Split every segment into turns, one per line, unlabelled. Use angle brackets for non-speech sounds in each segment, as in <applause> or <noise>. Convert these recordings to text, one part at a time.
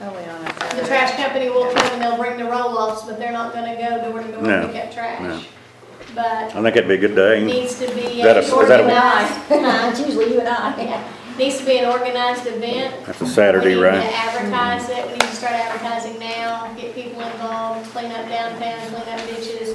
Oh, Uh,
The trash company will come and they'll bring the roll-offs, but they're not gonna go door to door
No,
and pick up
no.
trash. But
I think it'd be a good
it
day.
needs to be
Is that a-
an
is that a-
organized,
<laughs>
It's usually you and I.
yeah, needs to be an organized event.
That's a Saturday,
We need to
right?
advertise it, we need to start advertising now, get people involved, clean up downtown, clean up ditches.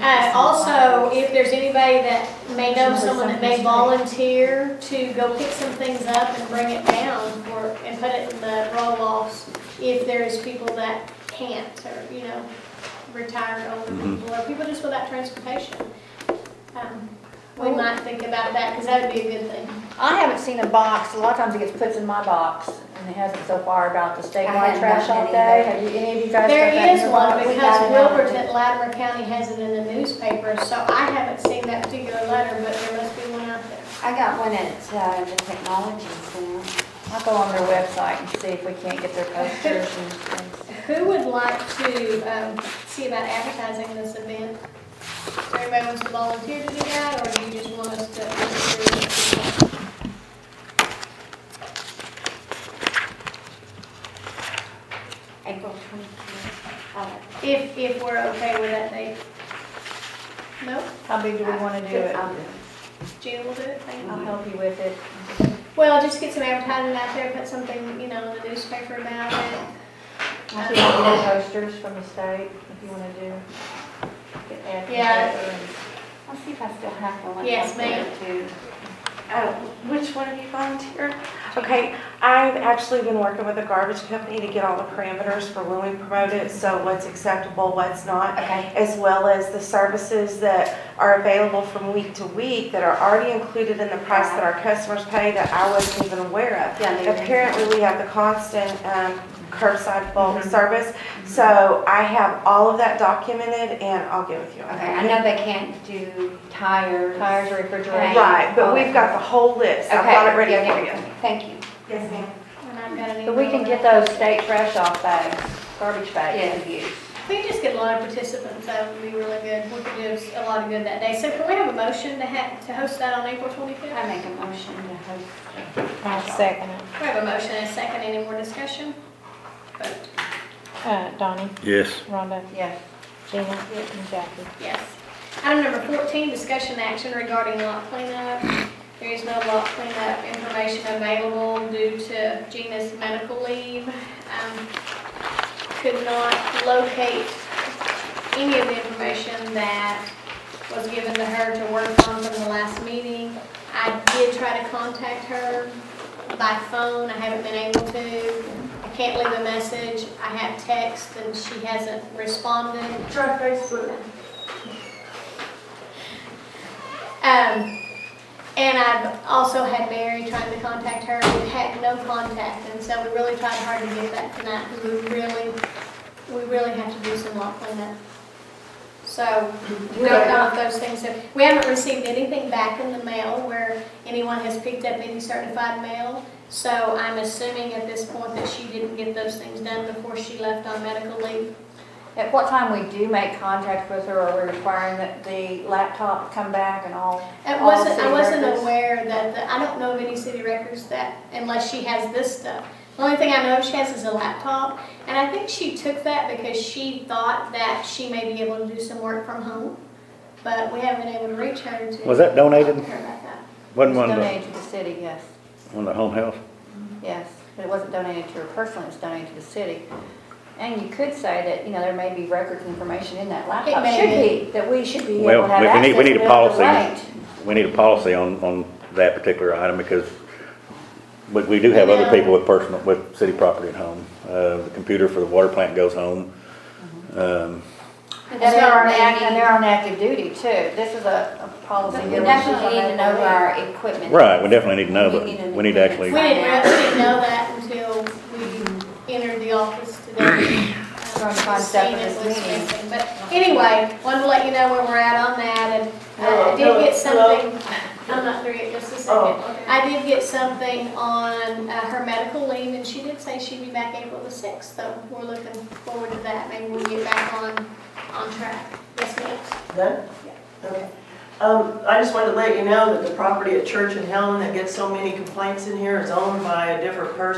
Uh, also, if there's anybody that may know someone that may volunteer to go pick some things up and bring it down for, and put it in the roll-offs, if there's people that can't, or, you know, retired older
Mhm.
people, or people just without transportation. Um, We might think about that, because that would be a good thing.
I haven't seen a box, a lot of times it gets put in my box, and it hasn't so far about the statewide
haven't
trash
gotten
all
it
day.
either.
Have you, any of you guys? got that
There
in
is
your
one
box?
we
because
got it out.
Wilburton, Latimer County has it in the newspaper, so I haven't seen that particular letter, but there must be one out there.
I got one at uh, the technology center.
I'll go on their website and see if we can't get their posters and things.
Who would like to um, see about advertising this event? If Anybody wants to volunteer to do that, or do you just want us to?
April 24th. Oh,
If, if we're okay with that date? Nope,
How big do we wanna do it?
I'll do
Gina will do it, thank you.
I'll help you with it.
Well, just get some advertising out there, put something, you know, in the newspaper about it.
I'll see if we can get posters from the state, if you wanna do. get ads in the
Yeah.
paper and-
I'll see if I still have one.
Yes, ma'am.
Oh, which one of you volunteered? Okay, I've actually been working with a garbage company to get all the parameters for when we promote it, so what's acceptable, what's not,
Okay.
as well as the services that are available from week to week that are already included in the price that our customers pay that I wasn't even aware of.
Yeah, they were-
Apparently, we have the constant um, curbside bulk
Mm-hmm.
service, so I have all of that documented, and I'll get with you on
Okay,
that.
I know they can't do tires.
Tires, refrigeration.
Right, but we've got the whole list, I've
Okay,
got it ready
yeah,
for you.
yeah, Thank you.
Yes, ma'am.
And I've got an
But we
email
can get
about it.
those state trash off bags, garbage bags.
Yeah.
We could just get a lot of participants, that would be really good, we could do a lot of good that day. So can we have a motion to ha to host that on April
I
twenty-fifth?
make a motion to host.
I'll second it.
We have a motion and a second, any more discussion? Vote.
Uh, Donnie,
Yes.
Rhonda,
Yes.
Gina, and Jackie.
Yes. Item number fourteen, discussion action regarding lot cleanup. There is no lot cleanup information available due to Gina's medical leave. Um, Could not locate any of the information that was given to her to work on from the last meeting. I did try to contact her by phone, I haven't been able to. I can't leave a message, I have text, and she hasn't responded. Um, and I've also had Mary trying to contact her, we had no contact, and so we really tried hard to get that tonight, because we really, we really have to do some lot cleanup. So, we don't know if those things have, we haven't received anything back in the mail where anyone has picked up any certified mail. So I'm assuming at this point that she didn't get those things done before she left on medical leave.
At what time we do make contact with her, are we requiring that the laptop come back and all?
It
all
wasn't, I
city
wasn't
records?
aware that, the- I don't know of any city records that, unless she has this stuff. The only thing I know she has is a laptop, and I think she took that because she thought that she may be able to do some work from home. But we haven't been able to reach her to.
Was that donated?
talk to her about that.
Wasn't one of the,
Donated to the city, yes,
one of the home health?
yes. But it wasn't donated to her personally, it was donated to the city. And you could say that, you know, there may be records and information in that laptop.
may
Should be, that we should be able
Well,
to have
we- we need-
access
we need a
to be able to
policy. We need a policy on, on that particular item because, but we do have other people with personal, with city property at home. Uh, the computer for the water plant goes home. Um,
And
Mm-hmm.
they're on, act- and they're on active duty too. This is a a policy.
We
here.
definitely
should
need to know
that.
our equipment.
Um, right, we definitely need to know, but
We need to-
we need to actually,
We didn't really know that until we entered the office today.
From
Um,
concept of
Christina
this
was
meeting.
missing. But anyway, wanted to let you know where we're at on that, and I did get something, I'm not through yet, just a second. I did get something on uh, her medical leave, and she did say she'd be back April the sixth, so we're looking forward to that. Maybe we'll get back on, on track. Yes, ma'am.
Done? Okay. Um, I just wanted to let you know that the property at Church and Helen that gets so many complaints in here is owned by a different person.